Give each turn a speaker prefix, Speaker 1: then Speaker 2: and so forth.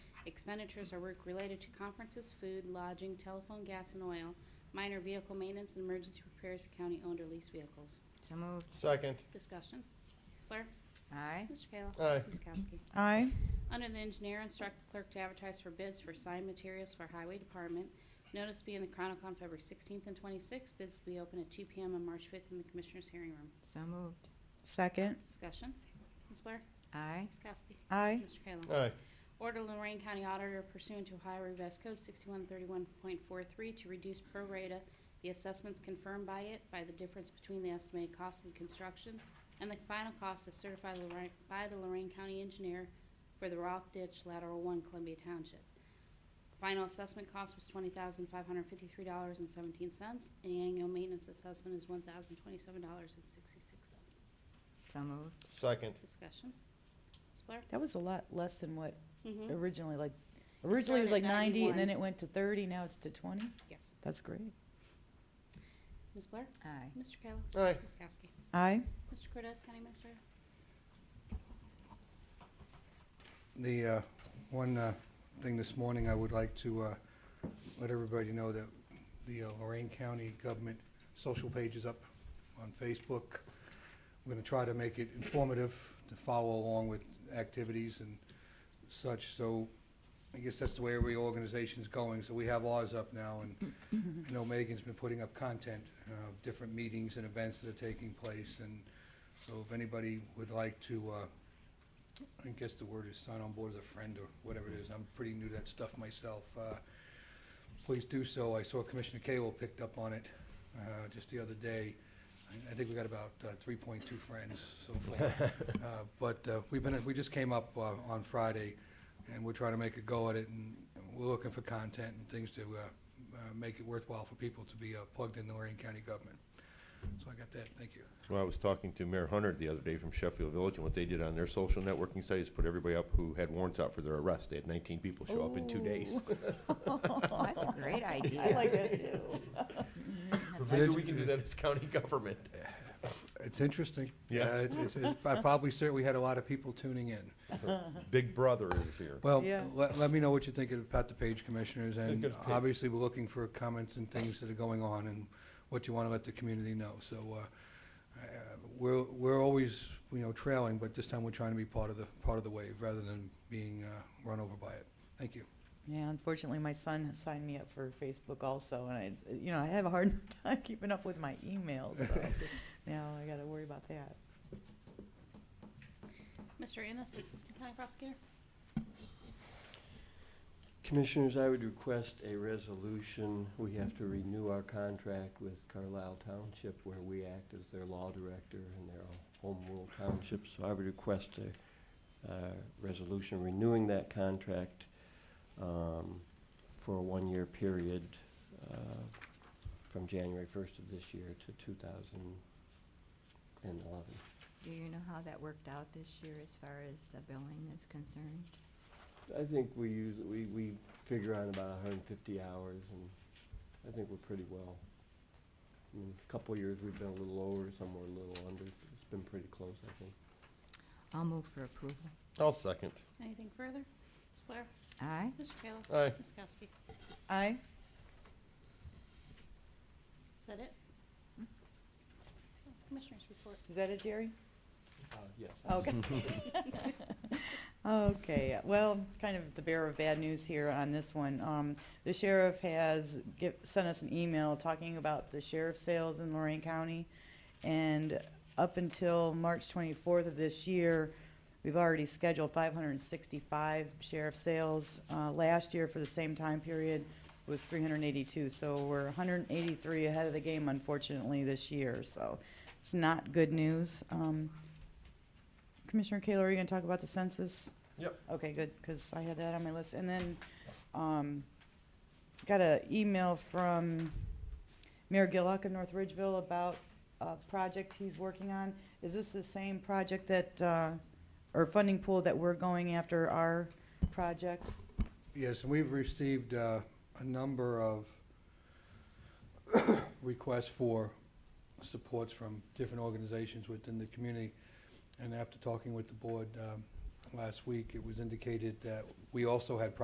Speaker 1: Expenditures are work related to conferences, food, lodging, telephone, gas, and oil, minor vehicle maintenance, and emergency repairs of county-owned or leased vehicles.
Speaker 2: So moved.
Speaker 3: second,
Speaker 1: Discussion. Ms. Blair?
Speaker 2: Aye.
Speaker 1: Mr. Kayla?
Speaker 3: Aye.
Speaker 1: Ms. Kowski?
Speaker 4: aye,
Speaker 1: Under the engineer, instruct the clerk to advertise for bids for signed materials for highway department. Notice to be in the Chronicle on February 16th and 26th. Bids to be open at 2 PM on March 5th in the Commissioners' hearing room.
Speaker 2: So moved.
Speaker 4: second,
Speaker 1: Discussion. Ms. Blair?
Speaker 2: Aye.
Speaker 1: Ms. Kowski?
Speaker 4: aye,
Speaker 1: Mr. Kayla?
Speaker 3: aye,
Speaker 1: Order Lorraine County Auditor pursuant to Ohio Revised Code 6131.43 to reduce pro rata the assessments confirmed by it by the difference between the estimated cost of the construction and the final cost as certified Lorraine- by the Lorraine County Engineer for the Roth Ditch Lateral 1 Columbia Township. Final assessment cost was $20,553.17, and the annual maintenance assessment is $1,027.66.
Speaker 2: So moved.
Speaker 3: second,
Speaker 1: Discussion. Ms. Blair?
Speaker 4: that was a lot less than what
Speaker 1: Mhm.
Speaker 4: originally, like, originally Mm-hmm. it was like
Speaker 1: started at
Speaker 4: ninety, and then
Speaker 1: 91.
Speaker 4: it went to thirty, now it's to twenty?
Speaker 1: Yes.
Speaker 4: That's great.
Speaker 1: Ms. Blair?
Speaker 2: Aye.
Speaker 1: Mr. Kayla?
Speaker 3: aye,
Speaker 1: Ms. Kowski?
Speaker 4: Aye,
Speaker 1: Mr. Cortez, County Minister?
Speaker 5: The uh, one uh, thing this morning, I would like to uh, let everybody know that the uh, Lorraine County Government social page is up on Facebook. We're going to try to make it informative to follow along with activities and such, so I guess that's the way every organization's going, so we have ours up now, and I know Megan's been putting up content, uh, different meetings and events that are taking place, and so if anybody would like to uh, I guess the word is sign on board as a friend or whatever it is. I'm pretty new to that stuff myself. Uh, Please do so. I saw Commissioner Cable picked up on it uh, just the other day. I- I think we got about uh, 3.2 friends so far. Uh, But uh, we've been, we just came up uh, on Friday, and we're trying to make a go at it, and we're looking for content and things to uh, uh, make it worthwhile for people to be uh, plugged in the Lorraine County government. So I got that. Thank you.
Speaker 6: Well, I was talking to Mayor Hunter the other day from Sheffield Village, and what they did on their social networking site is put everybody up who had warrants out for their arrest. They had nineteen people show up in two days.
Speaker 2: Oh, that's a great idea.
Speaker 4: I like that too.
Speaker 6: Maybe we can do that as county government.
Speaker 5: It's interesting.
Speaker 6: Yes.
Speaker 5: Uh, it's- it's- it's- I probably certainly had a lot of people tuning in.
Speaker 6: Big Brother is here.
Speaker 5: Well,
Speaker 4: Yeah.
Speaker 5: let, let me know what you think about the page commissioners,
Speaker 6: Good,
Speaker 5: and
Speaker 6: good page.
Speaker 5: obviously, we're looking for comments and things that are going on, and what you want to let the community know, so, uh, I- I- we're, we're always, you know, trailing, but this time we're trying to be part of the, part of the wave, rather than being, uh, run over by it. Thank you.
Speaker 4: Yeah, unfortunately, my son has signed me up for Facebook also, and I, you know, I have a hard time keeping up with my emails, so now I gotta worry about that.
Speaker 1: Mr. Ennis, Assistant County Prosecutor?
Speaker 7: Commissioners, I would request a resolution. We have to renew our contract with Carlisle Township where we act as their law director and their home rule township. So I would request a, uh, resolution renewing that contract, um, for a one-year period, uh, from January first of this year to two thousand and eleven.
Speaker 2: Do you know how that worked out this year as far as the billing is concerned?
Speaker 7: I think we use, we, we figure on about hundred and fifty hours, and I think we're pretty well. I mean, a couple of years, we've been a little over, some were a little under, it's been pretty close, I think.
Speaker 2: I'll move for approval.
Speaker 3: I'll second,
Speaker 1: Anything further? Ms. Blair?
Speaker 2: Aye.
Speaker 1: Mr. Kayla?
Speaker 3: aye,
Speaker 1: Ms. Kowski?
Speaker 4: Aye,
Speaker 1: Is that it? So, Commissioners report.
Speaker 4: is that it, Jerry?
Speaker 7: Uh, yes.
Speaker 4: Okay. Okay, well, kind of the bearer of bad news here on this one. Um, the sheriff has give, sent us an email talking about the sheriff sales in Lorraine County. And up until March twenty-fourth of this year, we've already scheduled five hundred and sixty-five sheriff sales. Uh, last year for the same time period was three hundred and eighty-two, so we're hundred and eighty-three ahead of the game unfortunately this year, so it's not good news. Um, Commissioner Kayla, are you gonna talk about the census?
Speaker 3: Yep.
Speaker 4: Okay, good, because I had that on my list. And then, um, got an email from Mayor Gillock of North Ridgeville about a project he's working on. Is this the same project that, uh, or funding pool that we're going after our projects?
Speaker 5: Yes, and we've received uh, a number of requests for supports from different organizations within the community. And after talking with the board um, last week, it was indicated that we also had